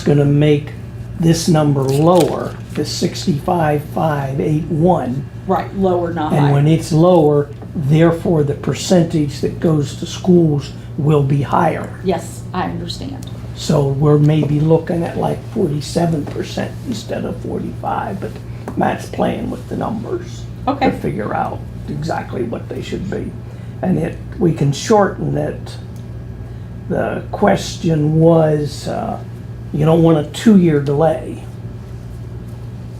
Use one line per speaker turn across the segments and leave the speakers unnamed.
gonna make this number lower, the sixty-five, five, eight, one.
Right, lower, not
And when
higher.
it's lower, therefore, the percentage that goes to schools will be higher.
Yes, I understand.
So we're maybe looking at like forty-seven percent instead of forty-five, but Matt's playing with the numbers.
Okay.
To figure out exactly what they should be. And it, we can shorten it. The question was, uh, you don't want a two-year delay.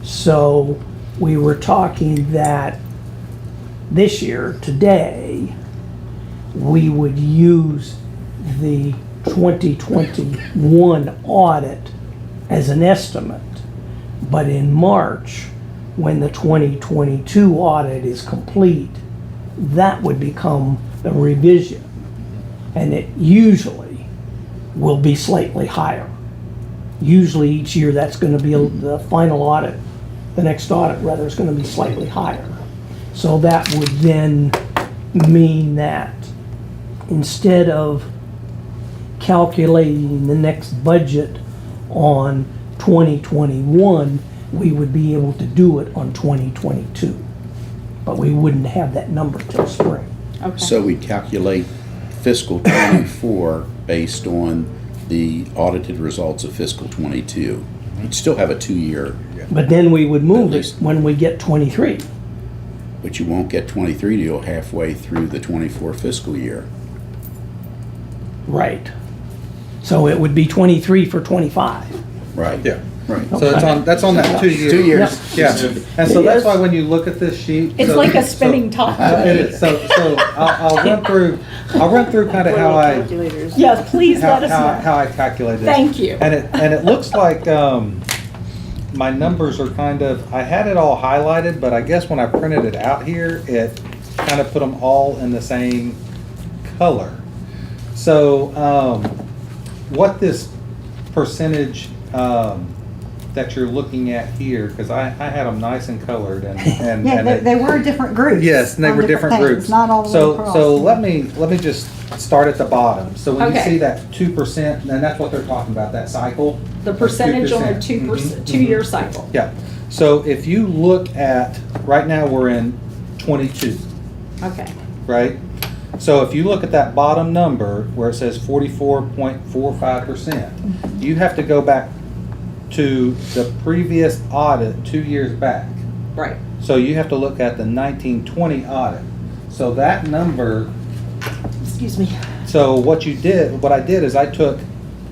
So we were talking that this year, today, we would use the 2021 audit as an estimate. But in March, when the 2022 audit is complete, that would become the revision. And it usually will be slightly higher. Usually each year, that's going to be, a- the final audit, the next audit rather, is going to be slightly higher. So that would then mean that instead of calculating the next budget on 2021, we would be able to do it on 2022. But we wouldn't have that number till spring.
Okay,
So we calculate fiscal '24 based on the audited results of fiscal '22. You'd still have a two-year,
But then we would move
At
it
least-
when we get 23.
but you won't get '23 till halfway through the '24 fiscal year.
Right. So it would be 23 for 25.
Right.
Yeah.
Right.
So that's on, that's on that two years.
Two years.
Yeah, and so that's why when you look at this sheet.
It's
so-
like a spinning
so-
top.
It is, so, so I'll, I'll run through, I'll run through kind of how I,
Yeah, please
how,
let us
how,
know.
how I calculated it.
Thank you.
And it, and it looks like, um, my numbers are kind of, I had it all highlighted, but I guess when I printed it out here, it kind of put them all in the same color. So, um, what this percentage, um, that you're looking at here, because I, I had them nice and colored and, and.
Yeah,
and
they,
it-
they were different groups.
Yes, and they
on
were different
things,
groups.
Not all the way across.
So, so let me, let me just start at the bottom. So when you
Okay.
see that two percent, and that's what they're talking about, that cycle.
The percentage on a
2%.
two
Mhm,
percent,
mhm.
two-year cycle.
Yeah, so if you look at, right now, we're in twenty-two,
Okay,
right? So if you look at that bottom number where it says forty-four point four five percent, you have to go back to the previous audit, two years back.
right.
So you have to look at the nineteen twenty audit. So that number
Excuse me.
So what you did, what I did is I took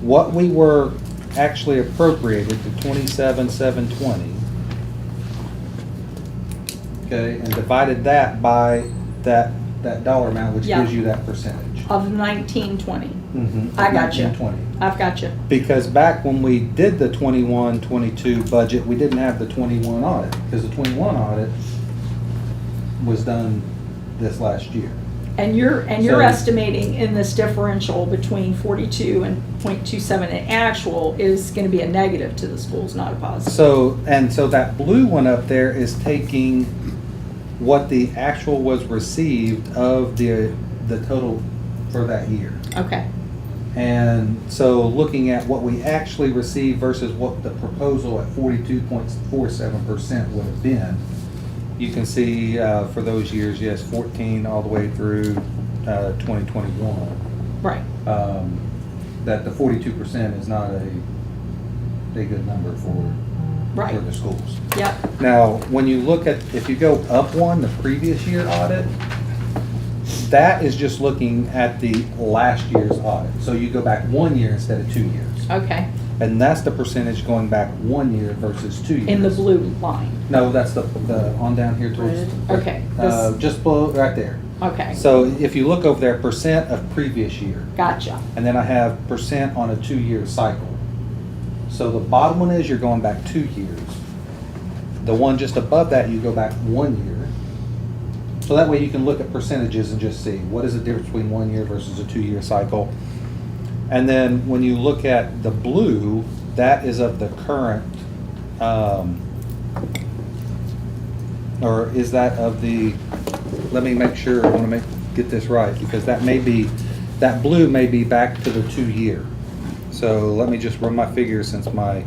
what we were actually appropriated, the twenty-seven, seven twenty. Okay, and divided that by that, that dollar amount, which
Yeah.
gives you that percentage.
Of nineteen twenty.
Mhm,
I got you.
1920.
I've got you.
Because back when we did the 21-22 budget, we didn't have the twenty-one audit, because the twenty-one audit was done this last year.
And you're, and you're
So-
estimating in this differential between forty-two and point two-seven in actual is gonna be a negative to the schools, not a positive.
So, and so that blue one up there is taking what the actual was received of the, the total for that year.
Okay,
And so looking at what we actually received versus what the proposal at forty-two point four seven percent would have been, you can see, uh, for those years, yes, fourteen all the way through, uh, twenty twenty-one
right.
um, that the forty-two percent is not a, a good number for, for
Right.
the schools.
Yep,
Now, when you look at, if you go up one, the previous year audit, that is just looking at the last year's audit. So you go back one year instead of two years.
okay.
And that's the percentage going back one year versus two years.
In the blue line.
No, that's the, the, on down here towards,
Okay,
uh,
this,
just below, right there.
okay,
So if you look over there, percent of previous year.
gotcha.
and then I have percent on a two-year cycle. So the bottom one is you're going back two years. The one just above that, you go back one year. So that way you can look at percentages and just see what is the difference between one year versus a two-year cycle. And then when you look at the blue, that is of the current, um, or is that of the, let me make sure, I want to make, get this right, because that may be, that blue may be back to the two-year. So let me just run my figures since my